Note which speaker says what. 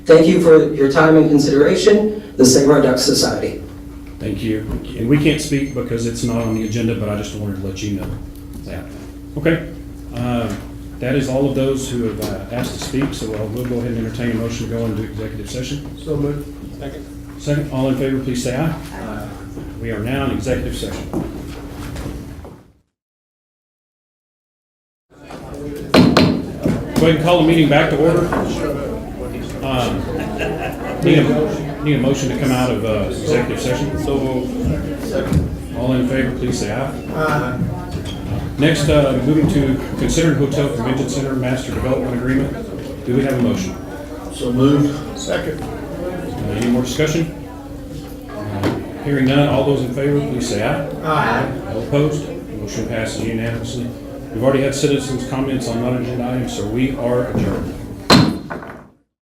Speaker 1: Thank you for your time and consideration, the Save Our Ducks Society.
Speaker 2: Thank you. And we can't speak because it's not on the agenda, but I just wanted to let you know that. Okay. Um, That is all of those who have uh, asked to speak, so uh, we'll go ahead and entertain a motion to go into executive session.
Speaker 3: So moved. Second.
Speaker 2: Second, all in favor, please say aye. Aye. We are now in executive session. Go ahead and call the meeting back to order. Um, Need a, need a motion to come out of uh, executive session? So All in favor, please say aye.
Speaker 3: Aye.
Speaker 2: Next, uh, moving to considered hotel convention center master development agreement. Do we have a motion?
Speaker 3: So moved. Second.
Speaker 2: Uh, Any more discussion? Uh, Hearing none, all those in favor, please say aye.
Speaker 3: Aye.
Speaker 2: All opposed? Motion passes unanimously. We've already had citizens' comments on non-agenda items, so we are adjourned.